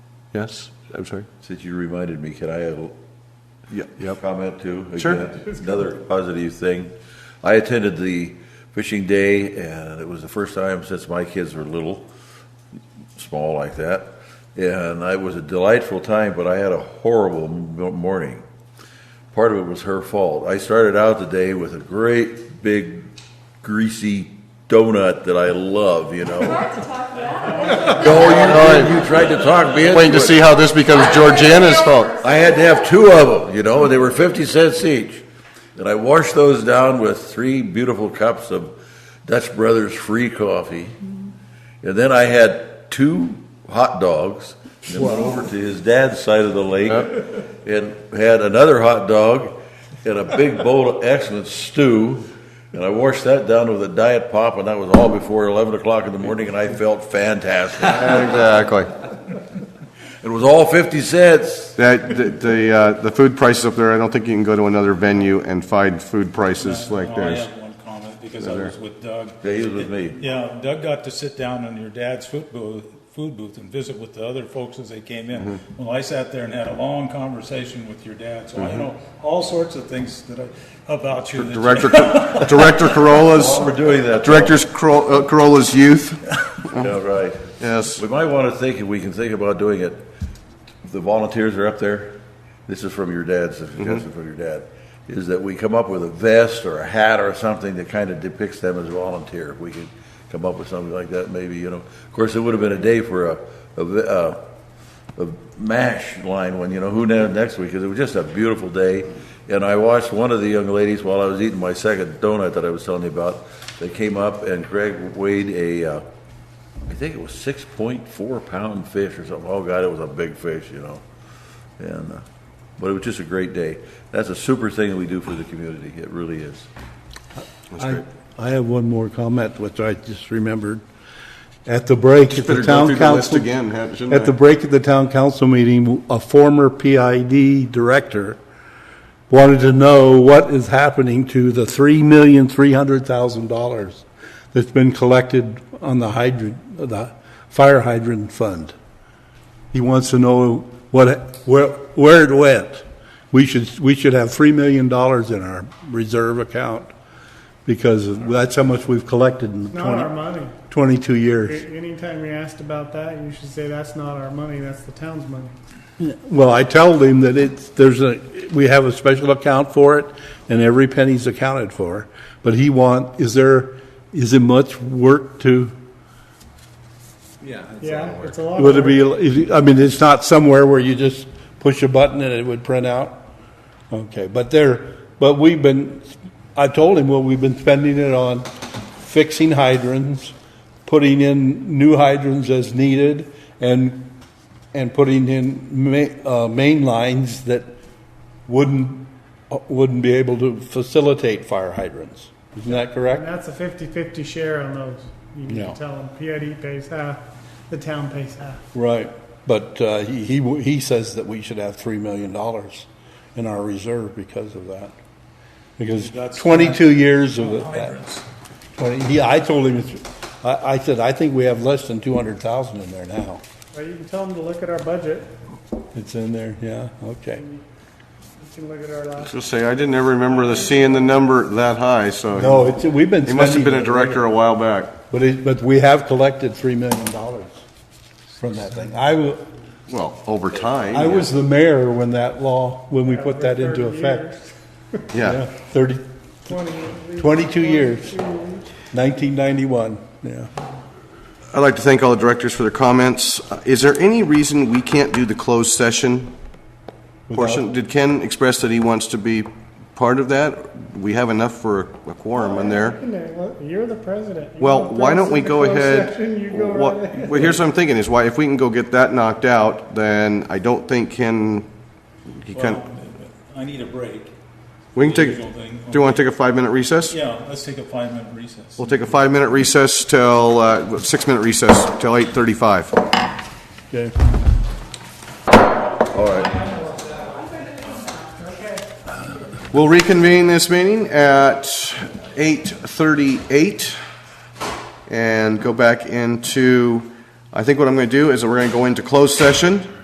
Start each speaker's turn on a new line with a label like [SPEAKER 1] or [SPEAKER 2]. [SPEAKER 1] Yes, I'm sorry.
[SPEAKER 2] Since you reminded me, can I have a
[SPEAKER 1] Ye- Yep.
[SPEAKER 2] comment too?
[SPEAKER 1] Sure.
[SPEAKER 2] Again, Another positive thing. I attended the fishing day and it was the first time since my kids were little, small like that. And it was a delightful time, but I had a horrible m- morning. Part of it was her fault. I started out the day with a great big greasy donut that I love, you know.
[SPEAKER 3] Hard to talk about.
[SPEAKER 2] No, you didn't. You tried to talk me into
[SPEAKER 1] Waiting to
[SPEAKER 2] it.
[SPEAKER 1] see how this becomes Georgiana's fault.
[SPEAKER 2] I had to have two of them, you know, and they were 50 cents each. And I washed those down with three beautiful cups of Dutch Brothers free coffee. And then I had two hot dogs and went over to his dad's side of the lake and had another hot dog and a big bowl of excellent stew. And I washed that down with a diet pop, and that was all before 11 o'clock in the morning, and I felt fantastic.
[SPEAKER 1] Exactly.
[SPEAKER 2] It was all 50 cents.
[SPEAKER 1] That, the- the, uh, the food prices up there, I don't think you can go to another venue and find food prices like
[SPEAKER 4] No, Oh, I
[SPEAKER 1] theirs.
[SPEAKER 4] have one comment because I was with Doug.
[SPEAKER 2] Yeah, he was with me.
[SPEAKER 4] Yeah, Doug got to sit down in your dad's food booth, food booth and visit with the other folks as they came in. Well, I sat there and had a long conversation with your dad, so I know all sorts of things that I, about you. that you-
[SPEAKER 1] Director, Director Corolla's,
[SPEAKER 2] While we're doing that, though-
[SPEAKER 1] Director's Coro- uh, Corolla's youth,
[SPEAKER 2] Yeah, right.
[SPEAKER 1] yes.
[SPEAKER 2] We might want to think, if we can think about doing it, the volunteers are up there, this is from your dad, so suggestion from your dad, is that we come up with a vest or a hat or something that kind of depicts them as a volunteer. If we could come up with something like that, maybe, you know. Of course, it would have been a day for a, a, v- uh, a MASH line one, you know, who knows next week, because it was just a beautiful day. And I watched one of the young ladies while I was eating my second donut that I was telling you about. They came up and Greg weighed a, uh, I think it was six point four pound fish or something. Oh God, it was a big fish, you know. And uh, but it was just a great day. That's a super thing that we do for the community. It really is.
[SPEAKER 5] I, I have one more comment, which I just remembered. At the break, at
[SPEAKER 1] better
[SPEAKER 5] the
[SPEAKER 1] go
[SPEAKER 5] town
[SPEAKER 1] through
[SPEAKER 5] council.
[SPEAKER 1] the list again, ha- shouldn't
[SPEAKER 5] At the
[SPEAKER 1] I?
[SPEAKER 5] break of the town council meeting, a former PID director wanted to know what is happening to the three million, three hundred thousand dollars that's been collected on the hydrant, the fire hydrant fund. He wants to know what, where, where it went. We should, we should have three million dollars in our reserve account because that's how much we've collected in
[SPEAKER 6] Not our
[SPEAKER 5] 20
[SPEAKER 6] money.
[SPEAKER 5] twenty-two years.
[SPEAKER 6] A- Anytime you're asked about that, you should say that's not our money, that's the town's money.
[SPEAKER 5] Well, I tell them that it's, there's a, we have a special account for it, and every penny's accounted for. But he want, is there, is it much work to,
[SPEAKER 6] Yeah, it's a lot. of
[SPEAKER 5] would it be,
[SPEAKER 6] work.
[SPEAKER 5] is it- I mean, it's not somewhere where you just push a button and it would print out? Okay, but there, but we've been, I told him, well, we've been spending it on fixing hydrants, putting in new hydrants as needed, and, and putting in ma- uh, main lines that wouldn't, uh, wouldn't be able to facilitate fire hydrants. Isn't that
[SPEAKER 6] And
[SPEAKER 5] correct?
[SPEAKER 6] that's a 50/50 share on those. You need
[SPEAKER 5] Yeah.
[SPEAKER 6] to tell them PID pays half, the town pays half.
[SPEAKER 5] Right. But, uh, he, he, w- he says that we should have three million dollars in our reserve because of that. Because
[SPEAKER 4] That's-
[SPEAKER 5] twenty-two years of it.
[SPEAKER 4] Hydrants.
[SPEAKER 5] Well, he, I told him, it's- I, I said, I think we have less than two hundred thousand in there now.
[SPEAKER 6] Or you can tell them to look at our budget,
[SPEAKER 5] It's in there, yeah, okay.
[SPEAKER 6] you can look at our last.
[SPEAKER 1] Just say, I didn't ever remember the seeing the number that high, so.
[SPEAKER 5] No, it's, we've been
[SPEAKER 1] He must have been
[SPEAKER 5] spending
[SPEAKER 1] a
[SPEAKER 5] it.
[SPEAKER 1] director a while back.
[SPEAKER 5] But it, but we have collected three million dollars from that thing. I, wa-
[SPEAKER 1] Well, over time.
[SPEAKER 5] I was the mayor when that law, when we put
[SPEAKER 6] for
[SPEAKER 5] that into
[SPEAKER 6] 30
[SPEAKER 5] effect.
[SPEAKER 6] years.
[SPEAKER 5] Yeah,
[SPEAKER 1] Yeah.
[SPEAKER 5] thirty,
[SPEAKER 6] 20
[SPEAKER 5] 22 years. nineteen ninety-one, yeah.
[SPEAKER 1] I'd like to thank all the directors for their comments. Uh, Is there any reason we can't do the closed session portion? Did Ken express that he wants to be part of that? We have enough for a quorum in there.
[SPEAKER 6] Isn't it? Look, You're the president. You
[SPEAKER 1] Well,
[SPEAKER 6] want
[SPEAKER 1] why
[SPEAKER 6] this
[SPEAKER 1] don't we
[SPEAKER 6] in the
[SPEAKER 1] go
[SPEAKER 6] closed
[SPEAKER 1] ahead?
[SPEAKER 6] session, You go
[SPEAKER 1] Well,
[SPEAKER 6] right ahead.
[SPEAKER 1] Well, here's what I'm thinking is why, if we can go get that knocked out, then I don't think Ken, he
[SPEAKER 4] Well,
[SPEAKER 1] can,
[SPEAKER 4] I need a break.
[SPEAKER 1] we can take,
[SPEAKER 4] usual
[SPEAKER 1] do
[SPEAKER 4] thing.
[SPEAKER 1] you want to take a five-minute recess?
[SPEAKER 4] Yeah, let's take a five-minute recess.
[SPEAKER 1] We'll take a five-minute recess till, uh, six-minute recess till 8:35.
[SPEAKER 5] Okay.
[SPEAKER 2] All right.
[SPEAKER 1] We'll reconvene this meeting at 8:38 and go back into, I think what I'm going to do is we're going to go into closed session.